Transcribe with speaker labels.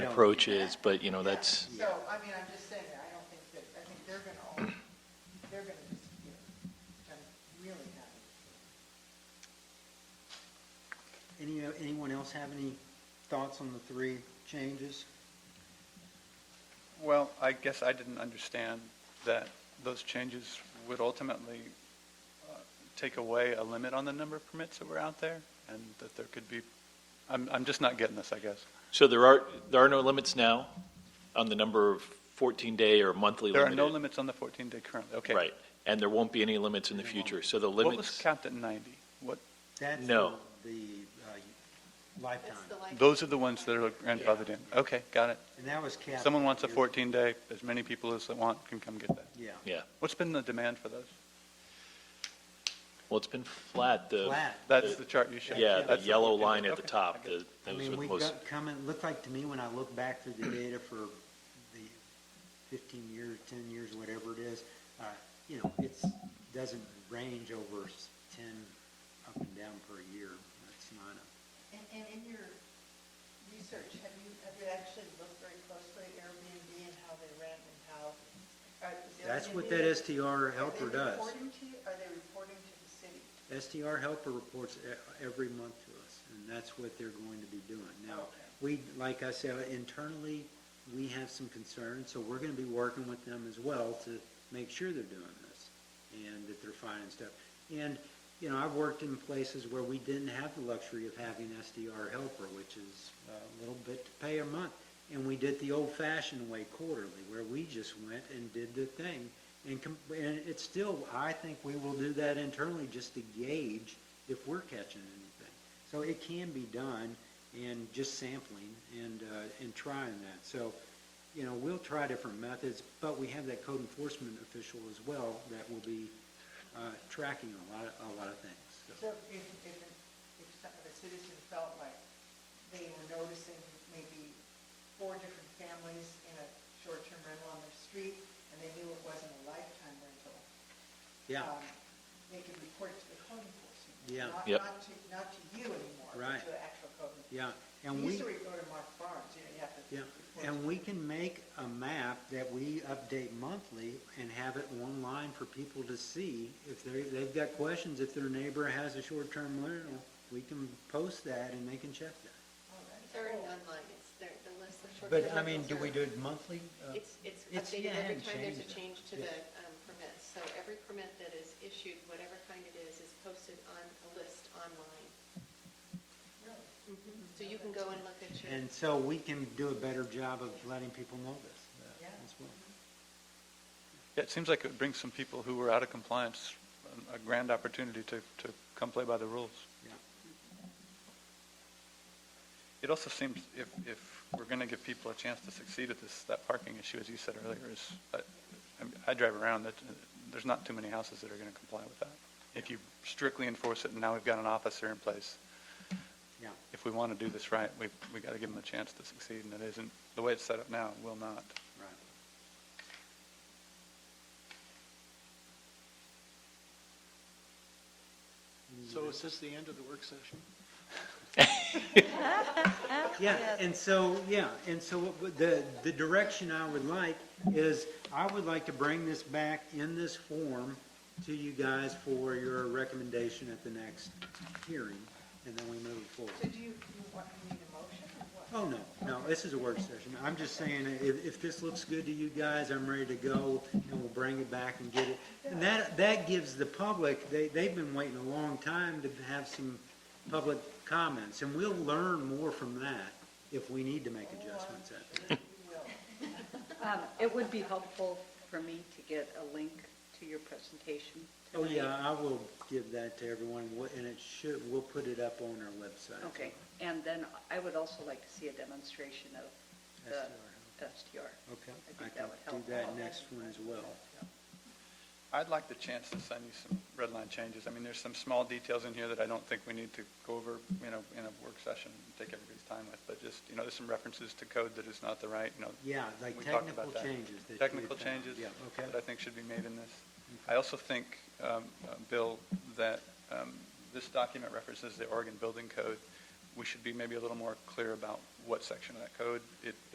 Speaker 1: approach is, but, you know, that's,
Speaker 2: So, I mean, I'm just saying, I don't think that, I think they're gonna, all- they're gonna disappear, which I'm really happy.
Speaker 3: Any, anyone else have any thoughts on the three changes?
Speaker 4: Well, I guess I didn't understand that those changes would ultimately uh, take away a limit on the number of permits that were out there, and that there could be, I'm, I'm just not getting this, I guess.
Speaker 1: so there are, there are no limits now on the number of 14-day or monthly
Speaker 4: There are
Speaker 1: limited?
Speaker 4: no limits on the 14-day currently, okay.
Speaker 1: Right, and there won't be any limits in the
Speaker 3: There won't.
Speaker 1: future, so the
Speaker 4: What was
Speaker 1: limits,
Speaker 4: capped at 90? What,
Speaker 3: That's
Speaker 1: No.
Speaker 3: The uh, lifetime,
Speaker 4: those are the ones that are grandfathered in? Okay, got it.
Speaker 3: and that was capped.
Speaker 4: Someone wants a
Speaker 3: at-
Speaker 4: 14-day, as many people as they want can come get that.
Speaker 3: Yeah,
Speaker 1: yeah,
Speaker 4: What's been the demand for those?
Speaker 1: well, it's been flat, the,
Speaker 3: flat.
Speaker 4: That's the chart you showed.
Speaker 1: yeah, the
Speaker 4: That's
Speaker 1: yellow
Speaker 4: 14-day.
Speaker 1: line at the
Speaker 4: Okay, I
Speaker 1: top,
Speaker 4: get
Speaker 1: the-
Speaker 3: I
Speaker 1: that was
Speaker 3: mean,
Speaker 1: with
Speaker 3: we
Speaker 1: most,
Speaker 3: got coming, looked like to me when I look back through the data for the fifteen years, ten years, whatever it is, uh, you know, it's, doesn't range over s- ten up and down per year. That's not a,
Speaker 2: And, and in your research, have you, have you actually looked very closely at Airbnb and how they rent and how? are- is
Speaker 3: that's what
Speaker 2: Airbnb-
Speaker 3: that STR helper
Speaker 2: Are they
Speaker 3: does.
Speaker 2: reporting to you, are they reporting to the city?
Speaker 3: STR helper reports e- every month to us, and that's what they're going to be doing. Now,
Speaker 2: Okay.
Speaker 3: we, like I said, internally, we have some concerns, so we're gonna be working with them as well to make sure they're doing this, and that they're finding stuff. And, you know, I've worked in places where we didn't have the luxury of having SDR helper, which is uh, a little bit to pay a month. And we did the old-fashioned way quarterly, where we just went and did the thing. And, com- and it's still, I think we will do that internally just to gauge if we're catching anything. So it can be done and just sampling and, uh, and trying that. So, you know, we'll try different methods, but we have that code enforcement official as well that will be, uh, tracking a lot, of- a lot of things. So,
Speaker 2: So if, if, if some of the citizen felt like they were noticing maybe four different families in a short-term rental on their street, and they knew it wasn't a lifetime rental.
Speaker 3: Yeah,
Speaker 2: um, They could report it to the code enforcement.
Speaker 3: Yeah.
Speaker 2: Not,
Speaker 1: Yep.
Speaker 2: not to, not to you anymore, but
Speaker 3: Right.
Speaker 2: to the actual code enforcement.
Speaker 3: yeah. And we.
Speaker 2: Usually we go to Mark Barnes, you know, you have to.
Speaker 3: Yeah,
Speaker 2: report to
Speaker 3: and we can make a map that we update monthly and have it online for people to see. If they, they've got questions, if their neighbor has a short-term rental, we can post that and they can check that.
Speaker 2: Oh, that's
Speaker 5: There are
Speaker 2: cool.
Speaker 5: none like it's there, the list of short.
Speaker 3: But, I mean, do we do it monthly? Uh,
Speaker 5: It's, it's
Speaker 3: It's- yeah,
Speaker 5: updated
Speaker 3: I
Speaker 5: every
Speaker 3: hadn't
Speaker 5: time there's a
Speaker 3: changed it.
Speaker 5: change to
Speaker 3: Yeah.
Speaker 5: the um, permit. So every permit that is issued, whatever kind it is, is posted on a list online.
Speaker 2: Really?
Speaker 5: So you can go and look at your,
Speaker 3: And so we can do a better job of letting people know this uh,
Speaker 2: Yeah.
Speaker 3: as well.
Speaker 4: Yeah, it seems like it would bring some people who were out of compliance um, a grand opportunity to, to come play by the rules.
Speaker 3: Yeah.
Speaker 4: It also seems if, if we're going to give people a chance to succeed at this, that parking issue, as you said earlier, is, I, I'm- I drive around, that, uh, there's not too many houses that are going to comply with that. If you strictly enforce it, and now we've got an officer in place,
Speaker 3: Yeah,
Speaker 4: if we want to do this right, we've, we got to give them a chance to succeed, and it isn't, the way it's set up now, it will not.
Speaker 3: right.
Speaker 6: So is this the end of the work session?
Speaker 3: Yeah, and so, yeah, and so what would- the, the direction I would like is, I would like to bring this back in this form to you guys for your recommendation at the next hearing, and then we move it forward.
Speaker 2: So do you, you want, you need a motion or what?
Speaker 3: Oh, no, no, this is a work session. I'm just saying, if, if this looks good to you guys, I'm ready to go, and we'll bring it back and get it. And that, that gives the public, they, they've been waiting a long time to have some public comments, and we'll learn more from that if we need to make adjustments at that.
Speaker 7: Um, It would be helpful for me to get a link to your presentation.
Speaker 3: Oh, yeah, I will give that to everyone, wh- and it should, we'll put it up on our website.
Speaker 7: Okay, and then I would also like to see a demonstration of the STR.
Speaker 3: Okay,
Speaker 7: I
Speaker 3: I
Speaker 7: think
Speaker 3: can
Speaker 7: that would
Speaker 3: do
Speaker 7: help.
Speaker 3: that next one as well.
Speaker 4: I'd like the chance to send you some red line changes. I mean, there's some small details in here that I don't think we need to go over, you know, in a work session and take everybody's time with, but just, you know, there's some references to code that is not the right, you know.
Speaker 3: Yeah, like
Speaker 4: we talked
Speaker 3: technical
Speaker 4: about that.
Speaker 3: changes that you
Speaker 4: Technical
Speaker 3: had found.
Speaker 4: changes
Speaker 3: Yeah, okay.
Speaker 4: that I think should be made in this. I also think, um, uh, Bill, that um, this document references the Oregon Building Code. We should be maybe a little more clear about what section of that code it